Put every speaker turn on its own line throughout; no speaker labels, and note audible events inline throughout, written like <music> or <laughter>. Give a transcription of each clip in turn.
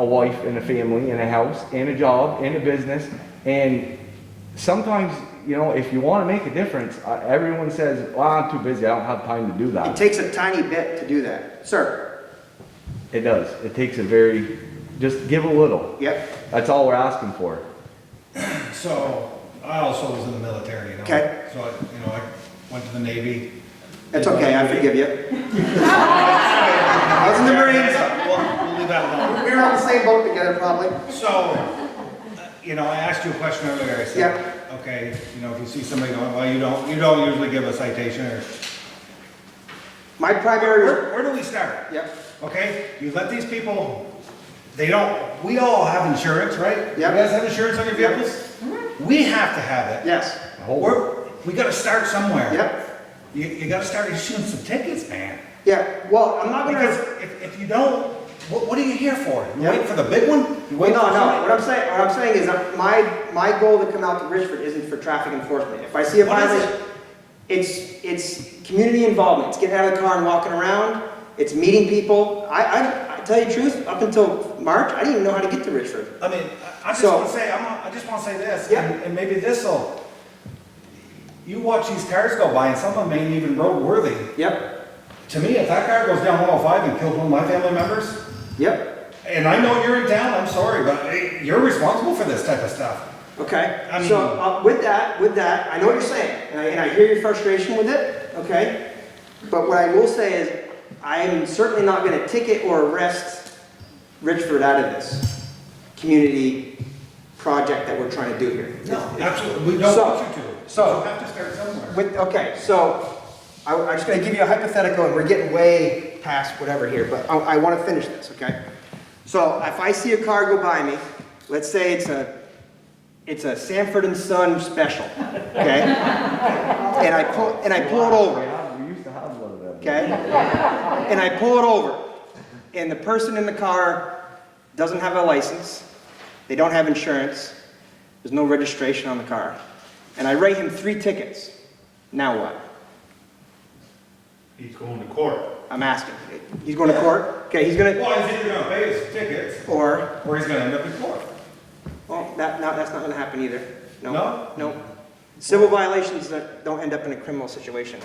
a wife and a family and a house and a job and a business. And sometimes, you know, if you want to make a difference, uh, everyone says, well, I'm too busy. I don't have time to do
It
that.
takes a tiny bit to do that. Sir,
It does. It takes a very, just give a little.
yep,
That's all we're asking for.
So, I also was in the military, you know?
Okay.
So, I- you know, I went to the Navy.
it's okay, I forgive
<laughs>
you. I was in the Marines,
We'll we'll leave that alone.
we were on the same boat together probably.
So, uh, you know, I asked you a question earlier, I said,
Yeah.
okay, you know, if you see somebody going, well, you don't, you don't usually give a citation, or,
My primary,
where, where do we start?
yep,
Okay, you let these people, they don't, we all have insurance, right?
Yeah. Mm-hmm.
You guys have insurance on your
Yeah.
vehicles? We have to have it.
yes,
We're, we gotta start somewhere.
yep,
You, you gotta start issuing some tickets, man.
yep. Well, I'm not
Because
gonna,
if, if you don't, what, what are you here for? You
Yeah.
wait for the big one? You
well,
wait
no,
for
no,
somebody-
what I'm saying, what I'm saying is that my, my goal to come out to Richford isn't for traffic enforcement. If I see a
What is
violation, it's, it's community involvement, it's getting out of the car and walking around, it's meeting people. I, I, I tell you the truth, up until March, I didn't even know how to get to Richford.
I mean, I- I just
So-
want to say, I'm, not- I just want to say this,
Yeah.
and, and maybe this'll, you watch these cars go by, and some of them ain't even roadworthy.
Yep,
To me, if that car goes down 105 and kills one of my family members,
yep,
and I know you're in town, I'm sorry, but eh, you're responsible for this type of stuff.
okay.
I
So,
mean-
uh, with that, with that, I know what you're saying, and I, and I hear your frustration with it, okay? But what I will say is, I'm certainly not gonna ticket or arrest Richford out of this community project that we're trying to do here.
Absolutely, we don't
So-
want you to.
so-
You have to start somewhere.
With, okay, so, I, I'm just gonna give you a hypothetical, and we're getting way past whatever here, but I, I wanna finish this, okay? So, if I see a car go by me, let's say it's a, it's a Sanford and Son special, okay? And I pull, and I pull it over,
Yeah, we used to have one of them.
okay? And I pull it over, and the person in the car doesn't have a license, they don't have insurance, there's no registration on the car, and I write him three tickets. Now what?
He's going to court.
I'm asking. He's going to court? Okay, he's gonna,
Well, he's either gonna pay his tickets,
or,
or he's gonna end up in court.
well, that, no, that's not gonna happen either. No?
No?
No. Civil violations that don't end up in a criminal situation.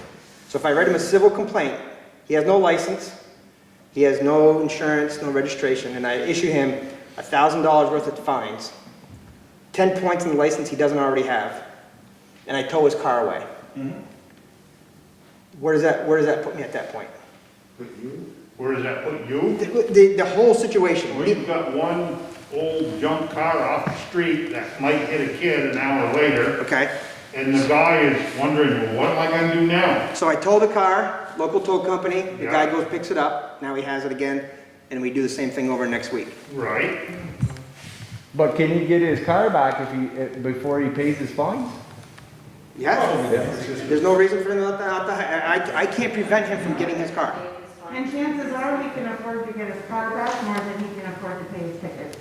So if I write him a civil complaint, he has no license, he has no insurance, no registration, and I issue him a thousand dollars worth of fines, ten points in the license he doesn't already have, and I tow his car away. Where does that, where does that put me at that point?
Where does that put you?
The, the, the whole situation.
Well, you've got one old junk car off the street that might hit a kid an hour later,
Okay?
and the guy is wondering, well, what am I gonna do now?
So I tow the car, local tow company, the guy
Yeah.
goes, picks it up, now he has it again, and we do the same thing over next week.
Right?
But can he get his car back if he, if- before he pays his fines?
Yeah,
Probably, it's just-
there's no reason for him not to, not to- I, I- I can't prevent him from getting his car.
And chances are, he can afford to get his car back more than he can afford to pay his tickets.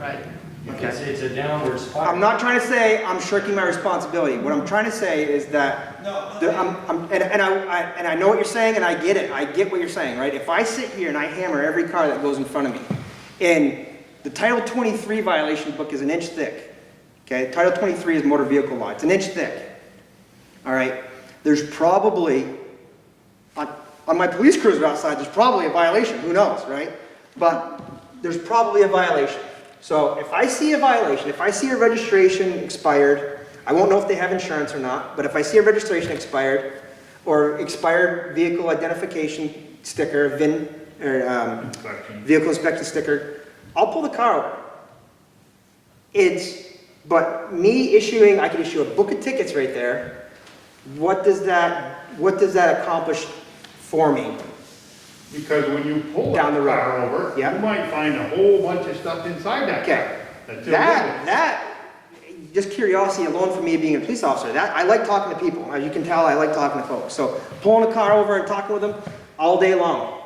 Right, because it's a downward spiral.
I'm not trying to say I'm shirking my responsibility, what I'm trying to say is that,
No.
that I'm, I'm, and, and I, I, and I know what you're saying, and I get it, I get what you're saying, right? If I sit here and I hammer every car that goes in front of me, and the Title twenty-three violation book is an inch thick, okay? Title twenty-three is motor vehicle law, it's an inch thick. All right, there's probably, on, on my police cruiser outside, there's probably a violation, who knows, right? But there's probably a violation. So if I see a violation, if I see a registration expired, I won't know if they have insurance or not, but if I see a registration expired, or expired vehicle identification sticker, VIN, or, um, vehicle inspection sticker, I'll pull the car over. It's, but me issuing, I could issue a book of tickets right there. What does that, what does that accomplish for me?
Because when you pull that
Down the road.
car over,
Yeah.
you might find a whole bunch of stuff inside that
Okay.
car. that's
That,
illegal.
that, just curiosity alone for me being a police officer, that, I like talking to people. As you can tell, I like talking to folks. So pulling a car over and talking with them all day long.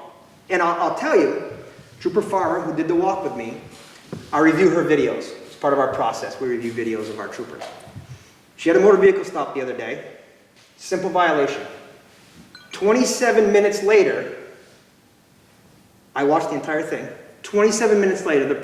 And I'll, I'll tell you, Trooper Farmer, who did the walk with me, I review her videos. It's part of our process. We review videos of our troopers. She had a motor vehicle stop the other day. Simple violation. 27 minutes later, I watched the entire thing. 27 minutes later, the